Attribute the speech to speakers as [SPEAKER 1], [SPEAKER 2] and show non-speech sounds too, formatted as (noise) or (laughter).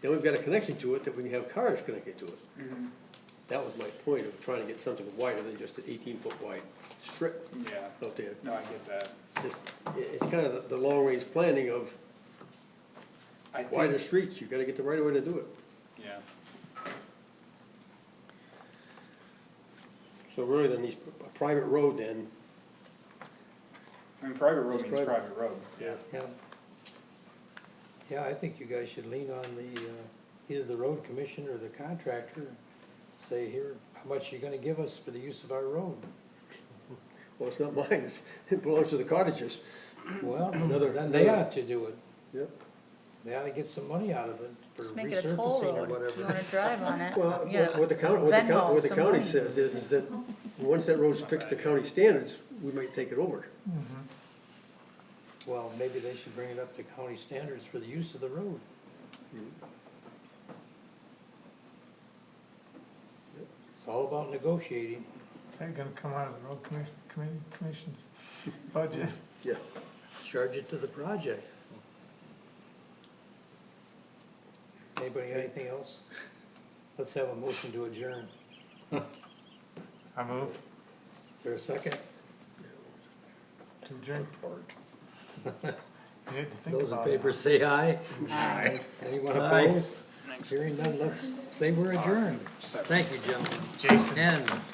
[SPEAKER 1] Then we've got a connection to it that we can have cars connected to it.
[SPEAKER 2] Mm-hmm.
[SPEAKER 1] That was my point of trying to get something wider than just an eighteen-foot wide strip
[SPEAKER 2] Yeah,
[SPEAKER 1] out there.
[SPEAKER 2] no, I get that.
[SPEAKER 1] Just- i- It's kind of the, the long-range planning of
[SPEAKER 2] I think-
[SPEAKER 1] wider streets, you gotta get the right way to do it.
[SPEAKER 2] Yeah,
[SPEAKER 1] So really, then these, a private road then,
[SPEAKER 2] I mean, private road
[SPEAKER 1] It's
[SPEAKER 2] means
[SPEAKER 1] private.
[SPEAKER 2] private road, yeah.
[SPEAKER 3] Yeah. Yeah, I think you guys should lean on the, uh, either the road commission or the contractor, and say here, how much you gonna give us for the use of our
[SPEAKER 1] (clears throat)
[SPEAKER 3] road?
[SPEAKER 1] well, it's not (laughs) mine, it's- it belongs to the cottages.
[SPEAKER 3] Well,
[SPEAKER 1] Another-
[SPEAKER 3] then they
[SPEAKER 1] another-
[SPEAKER 3] ought to do it,
[SPEAKER 1] Yep.
[SPEAKER 3] they ought to get some money out of it for
[SPEAKER 4] Just make it a toll
[SPEAKER 3] resurfacing or
[SPEAKER 4] road, if you wanna
[SPEAKER 3] whatever.
[SPEAKER 4] drive on it,
[SPEAKER 2] Uh,
[SPEAKER 1] Well,
[SPEAKER 4] yeah.
[SPEAKER 1] what the county, what the county,
[SPEAKER 4] Venmo
[SPEAKER 1] what the
[SPEAKER 4] some
[SPEAKER 1] county
[SPEAKER 4] money.
[SPEAKER 1] says is, is that, once that road's fixed to county standards, we might take it over.
[SPEAKER 3] Well, maybe they should bring it up to county standards for the use of the road.
[SPEAKER 1] Mm-hmm.
[SPEAKER 3] It's all about negotiating.
[SPEAKER 5] They're gonna come out of the road commission, commission, commission's budget.
[SPEAKER 1] Yeah.
[SPEAKER 3] charge it to the project. Anybody got anything else? Let's have a motion to adjourn.
[SPEAKER 5] I move
[SPEAKER 3] Is there a second?
[SPEAKER 5] to adjourn. You had to think
[SPEAKER 3] Those in
[SPEAKER 5] about it.
[SPEAKER 3] favor say aye. Anyone opposed? Hearing none, let's say we're adjourned. Thank you, gentlemen.
[SPEAKER 5] Jason.
[SPEAKER 3] And